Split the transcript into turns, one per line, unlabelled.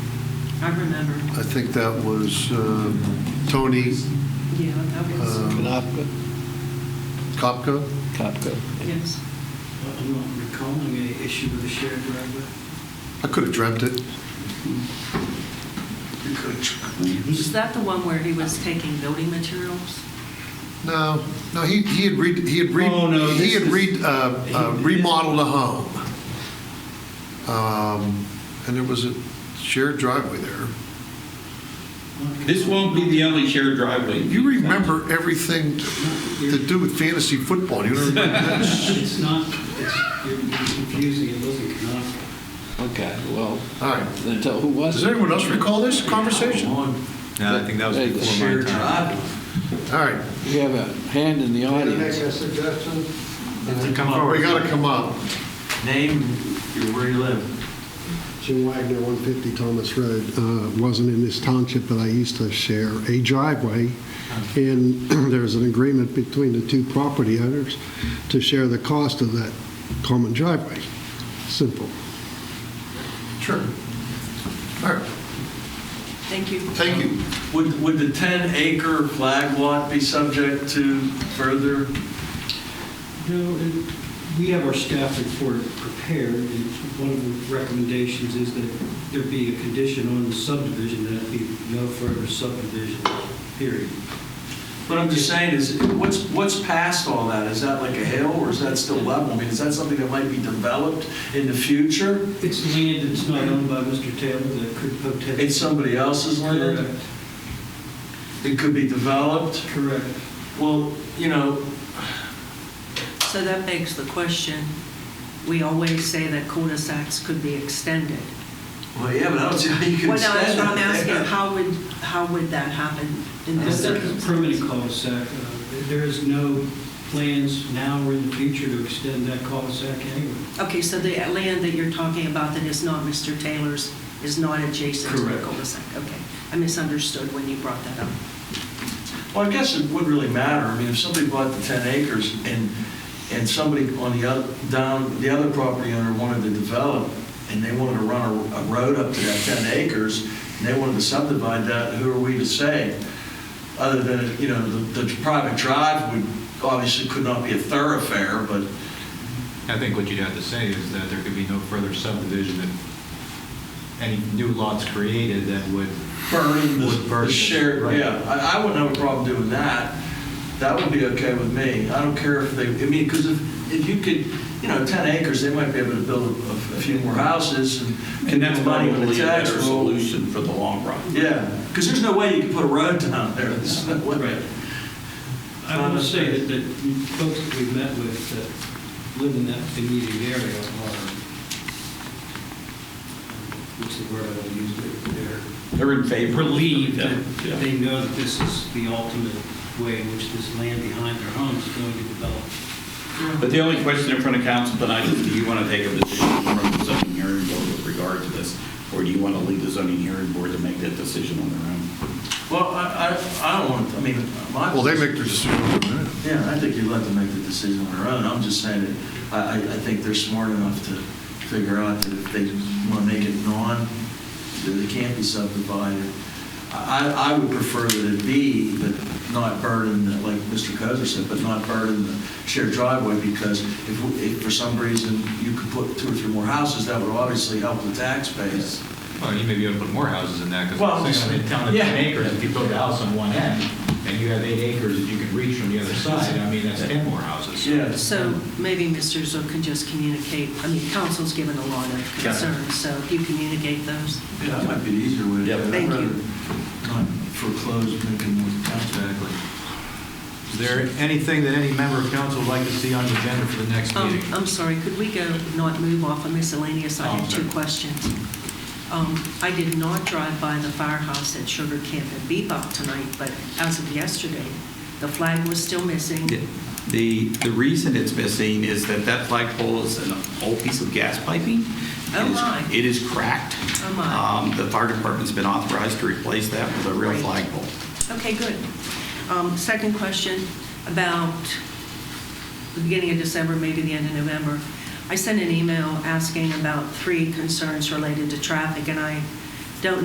I remember.
I think that was uh, Tony
Yeah, that was,
Uh,
Knopka?
Kopka.
Knopka.
yes.
I'm not recalling any issue with the shared driveway.
I could have dreamt it.
Is that the one where he was taking building materials?
No, no, he, he had re, he had re,
Oh, no,
he
this
had
is-
re, uh, uh, remodeled a home. Um, and there was a shared driveway there.
This won't be the only shared driveway.
You remember everything to do with fantasy football. You don't remember that?
It's not, it's, you're you're confusing, it wasn't Knopka.
Okay, well,
All right.
then tell, who was
Does
it?
anyone else recall this conversation? All
No, I think that was
Hey, the
before my
shared
time.
right.
We have a hand in the audience.
suggestion?
Come
We
forward.
got to come up.
Name, where you live.
Jim Wagner, 150 Thomas Road, Uh, wasn't in this township, but I used to share a driveway, and there's an agreement between the two property owners to share the cost of that common driveway. Simple.
Sure. All right.
Thank you.
Thank you.
Would, would the 10-acre flag lot be subject to further?
No, it- we have our staff report prepared, and one of the recommendations is that there be a condition on the subdivision that it be no further subdivision, period.
What I'm just saying is, what's, what's past all that? Is that like a hill or is that still level? I mean, is that something that might be developed in the future?
It's land that's not owned by Mr. Taylor that could potentially.
It's somebody else's land?
Correct,
It could be developed?
correct.
Well, you know,
So that begs the question, we always say that cul-de-sacs could be extended.
well, yeah, but I don't see how you can
Well, no, that's
extend it
what I'm asking,
there.
how would, how would that happen in this
That's a
circumstance?
permanent cul-de-sac. Uh, There is no plans now or in the future to extend that cul-de-sac anywhere.
Okay, so the land that you're talking about that is not Mr. Taylor's is not adjacent to the
Correct.
cul-de-sac? Okay, I misunderstood when you brought that up.
Well, I guess it wouldn't really matter. I mean, if somebody bought the 10 acres and, and somebody on the other, down, the other property owner wanted to develop and they wanted to run a, a road up to that 10 acres and they wanted to subdivide that, who are we to say? Other than, you know, the, the private drive would, obviously could not be a thoroughfare, but
I think what you'd have to say is that there could be no further subdivision if any new lots created that would,
burning the,
Would burn
the
it,
shared,
right.
yeah, I, I wouldn't have a problem doing that. That would be okay with me. I don't care if they, I mean, because if, if you could, you know, 10 acres, they might be able to build a, a few more houses and. get
And that's
more money on the
probably a
tax
better
roll.
solution for the long run.
Yeah, because there's no way you could put a road down there. There's no way.
Right. I want to say that, that folks that we've met with that live in that immediate area are, what's the word I want to use, They're-
They're in
they're
favor.
relieved
Yeah, yeah.
that they know that this is the ultimate way in which this land behind their home is going to develop.
But the only question in front of council tonight is, do you want to take a position from the zoning hearing board with regard to this? Or do you want to leave the zoning hearing board to make that decision on their own?
Well, I, I, I don't want, I mean, my.
Well, they make their decision.
Yeah, I think you let them make the decision on their own. I'm just saying that I, I, I think they're smart enough to figure out that if they want to make it non, that it can't be subdivided. I, I would prefer that it be, but not burden, the- like Mr. Kozer said, but not burden the shared driveway because if, if for some reason you could put two or three more houses, that would obviously help the tax base.
well, you may be able to put more houses in that,
Well,
because it's saying, in town of
yeah.
10 acres, if you build a house on one end, and you have eight acres that you can reach from the other side, I mean, that's 10 more houses.
Yeah.
So maybe Mr. Zook can just communicate, I mean, council's given a lot of
Yeah.
concerns, so if you communicate those.
Yeah, that might be the easier way to do it.
Yep.
I'd
Thank you.
rather Not foreclose, make it more tax-backly.
Is there anything that any member of council would like to see on the agenda for the next
Um,
meeting?
I'm sorry, could we go, not move off of miscellaneous? I
Oh,
have two
okay.
questions. Um, I did not drive by the firehouse at Sugar Camp and Bebop tonight, but as of yesterday, the flag was still missing.
The, the reason it's missing is that that flagpole is an old piece of gas piping.
Oh,
It is-
my.
It is cracked.
Oh, my.
Um, The fire department's been authorized to replace that with a real
Great.
flagpole.
Okay, good. Um, Second question about the beginning of December, maybe the end of November. I sent an email asking about three concerns related to traffic, and I